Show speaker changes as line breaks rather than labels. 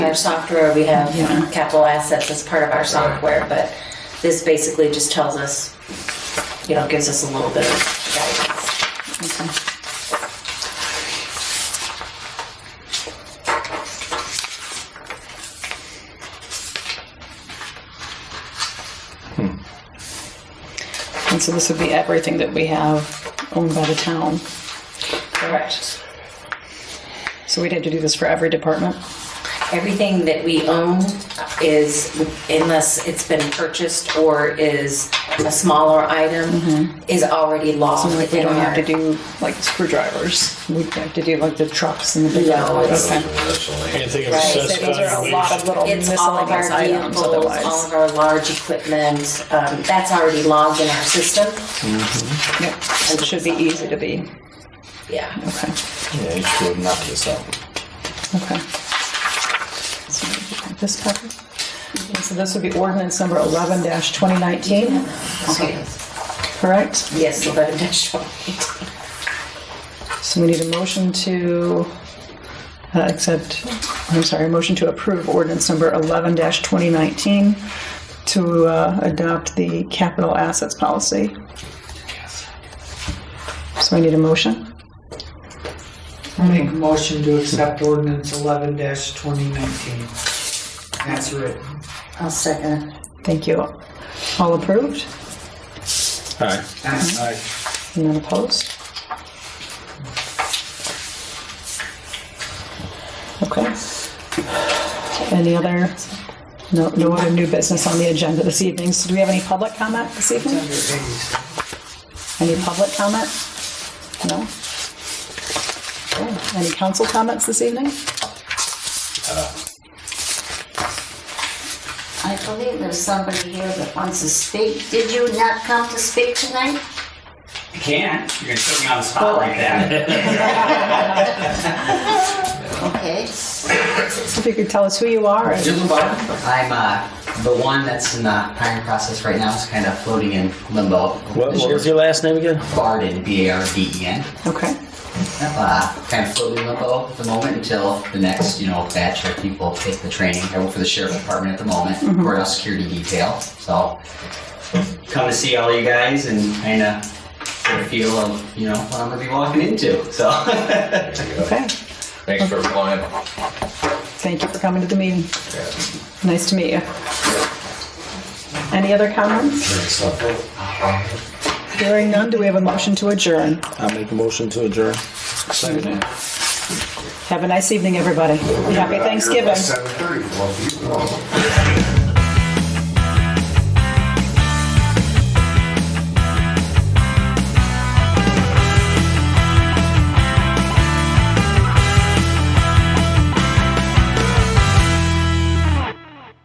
Our software, we have
Yeah.
capital assets as part of our software, but this basically just tells us, you know, gives us a little bit of guidance.
And so this would be everything that we have owned by the town.
Correct.
So we'd have to do this for every department?
Everything that we own is, unless it's been purchased or is a smaller item, is already law.
So like Mm-hmm. we
within
don't have
our-
to do like screwdrivers. We'd have to do like the trucks and the big.
No, it's-
Okay.
Anything
Right, so
assessed
Those are a
valuation.
lot of little
It's all of
miscellaneous
our
items
vehicles, all
otherwise.
of our large equipment, um, that's already logged in our system.
Yep. So It should be easy to be,
Yeah.
okay,
Yeah, you should knock this out.
okay. So we can put This cover. And So this would be ordinance number eleven twenty nineteen,
Okay.
correct?
Yes, eleven dash one.
So we need a motion to uh, accept, I'm sorry, a motion to approve ordinance number 11-2019 to uh, adopt the capital assets policy. So we need a motion.
I'll make a motion to accept ordinance eleven twenty nineteen. That's written.
I'll second.
Thank you. All approved?
Aye.
Aye.
None opposed? Okay. Any other, no, no other new business on the agenda this evening. So do we have any public comment this evening?
Under Iggy's.
Any public comment? No? Okay. Any council comments this evening?
I believe there's somebody here that wants to speak. Did you not come to speak tonight?
I can't. You're gonna put me on the spot like that.
Okay.
If you could tell us who you are. and-
I'm uh, the one that's in the hiring process right now. It's kind of floating in limbo.
What, what was your last name again?
Barden, B-A-R-D-E-N.
Okay,
E Uh, kind of floating in limbo at the moment until the next, you know, batch of people take the training. I work for the sheriff's department at the moment, Royal Security Detail. So come to see all you guys and kind of get a feel of, you know, what I'm gonna be walking into. So
okay.
Thanks for applying.
Thank you for coming to the meeting. Nice to meet you. Any other comments? Hearing none, do we have a motion to adjourn?
I'll make a motion to adjourn.
Have a nice evening, everybody. Happy Thanksgiving.
Seven thirty, well, if you want.